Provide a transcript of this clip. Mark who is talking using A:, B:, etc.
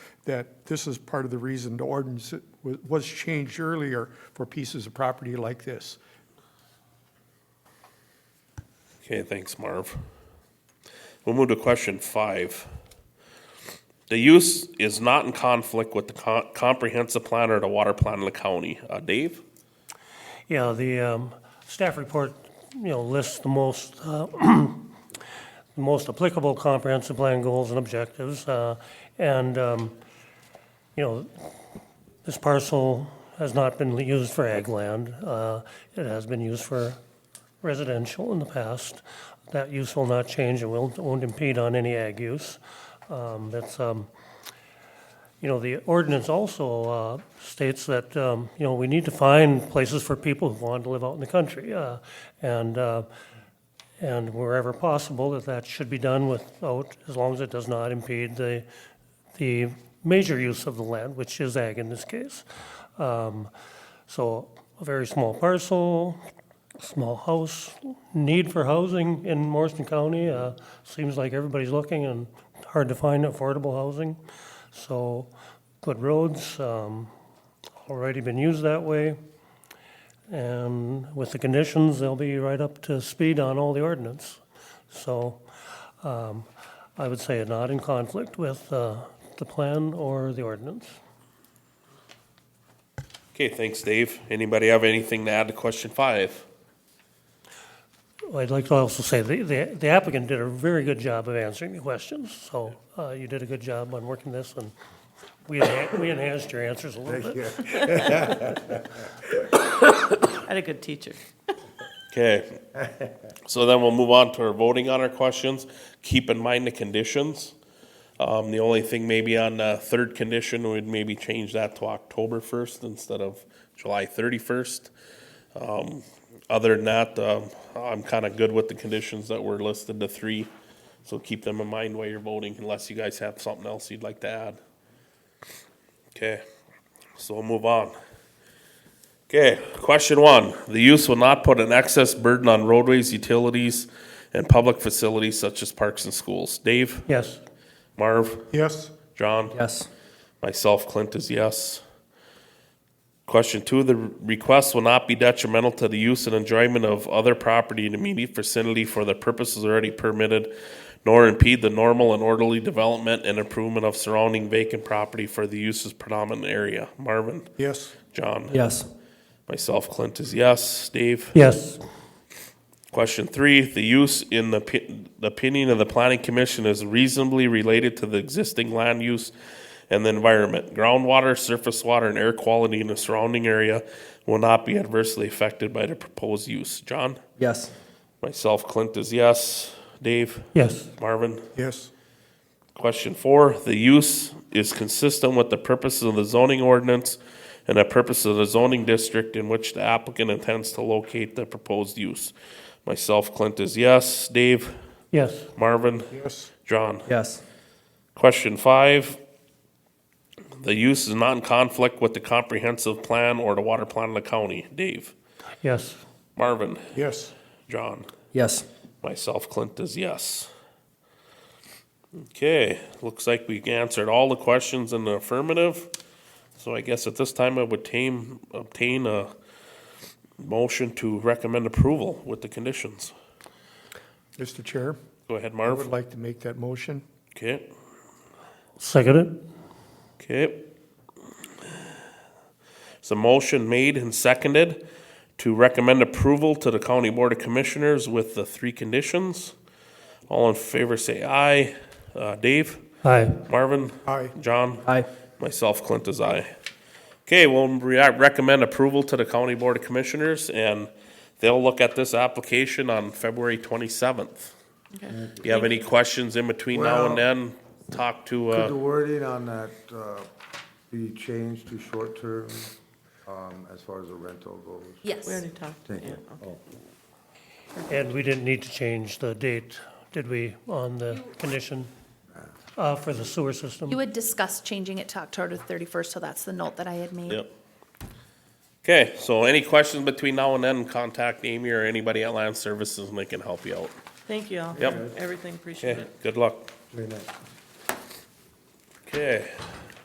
A: that this is part of the reason the ordinance wa- was changed earlier for pieces of property like this.
B: Okay, thanks, Marv. We'll move to question five. The use is not in conflict with the co- comprehensive plan or the water plan of the county. Uh, Dave?
C: Yeah, the um, staff report, you know, lists the most, uh, the most applicable comprehensive plan goals and objectives. uh, And, um, you know, this parcel has not been used for ag land. uh, It has been used for residential in the past. That use will not change and will- won't impede on any ag use. Um, That's, um, you know, the ordinance also uh, states that, um, you know, we need to find places for people who want to live out in the country. uh, And, uh, and wherever possible, that that should be done without, as long as it does not impede the, the major use of the land, which is ag in this case. Um, So a very small parcel, small house, need for housing in Morrison County, uh, seems like everybody's looking and hard to find affordable housing. So good roads, um, already been used that way. And with the conditions, they'll be right up to speed on all the ordinance. So um, I would say not in conflict with uh, the plan or the ordinance.
B: Okay, thanks, Dave. Anybody have anything to add to question five?
C: I'd like to also say the- the the applicant did a very good job of answering the questions. So uh, you did a good job on working this, and we enhan- we enhanced your answers a little bit.
D: I had a good teacher.
B: Okay. So then we'll move on to our voting on our questions. Keep in mind the conditions. Um, the only thing maybe on the third condition, we'd maybe change that to October first instead of July thirty-first. Um, other than that, um, I'm kinda good with the conditions that were listed, the three. So keep them in mind while you're voting unless you guys have something else you'd like to add. Okay, so we'll move on. Okay, question one. The use will not put an excess burden on roadways, utilities, and public facilities such as parks and schools. Dave,
C: Yes,
B: Marv,
A: Yes,
B: John?
E: Yes.
B: Myself, Clint is yes. Question two, the request will not be detrimental to the use and enjoyment of other property in immediate vicinity for the purposes already permitted, nor impede the normal and orderly development and improvement of surrounding vacant property for the use's predominant area. Marvin,
A: yes,
B: John?
E: Yes.
B: Myself, Clint is yes. Dave?
C: yes,
B: Question three, the use in the pi- the opinion of the planning commission is reasonably related to the existing land use and the environment. Groundwater, surface water, and air quality in the surrounding area will not be adversely affected by the proposed use. John?
E: Yes.
B: Myself, Clint is yes. Dave?
C: yes,
B: Marvin?
A: yes,
B: Question four, the use is consistent with the purposes of the zoning ordinance and the purpose of the zoning district in which the applicant intends to locate the proposed use. Myself, Clint is yes. Dave,
C: yes,
B: Marvin,
A: yes,
B: John.
E: Yes.
B: Question five, the use is not in conflict with the comprehensive plan or the water plan of the county. Dave,
C: yes,
B: Marvin,
A: yes,
B: John.
E: Yes.
B: Myself, Clint is yes. Okay, looks like we answered all the questions in the affirmative. So I guess at this time I would tame, obtain a motion to recommend approval with the conditions.
A: Mr. Chair,
B: Go ahead,
A: I would
B: Marv.
A: like to make that motion.
B: Okay,
C: second it,
B: okay. So motion made and seconded to recommend approval to the County Board of Commissioners with the three conditions. All in favor, say aye. Uh, Dave,
C: aye.
B: Marvin?
A: Aye,
B: John?
E: Aye.
B: Myself, Clint is aye. Okay, we'll re- recommend approval to the County Board of Commissioners, and they'll look at this application on February twenty-seventh. If you have any questions in between now and
F: Well-
B: then, talk to,
F: Could the
B: uh,
F: wording on that uh, be changed to short-term um, as far as the rental goes?
G: Yes.
D: We already talked.
F: Thank you.
D: Yeah.
F: Oh.
C: And we didn't need to change the date, did we, on the condition uh, for the sewer
G: You
C: system?
G: had discussed changing it to October 31st, so that's the note that I had made.
B: yep. Okay, so any questions between now and then, contact Amy or anybody at Land Services, and they can help you out.
D: Thank you all.
B: Yep.
D: Everything, appreciate
B: Okay,
D: it.
B: good luck.
F: Very nice.
B: Okay,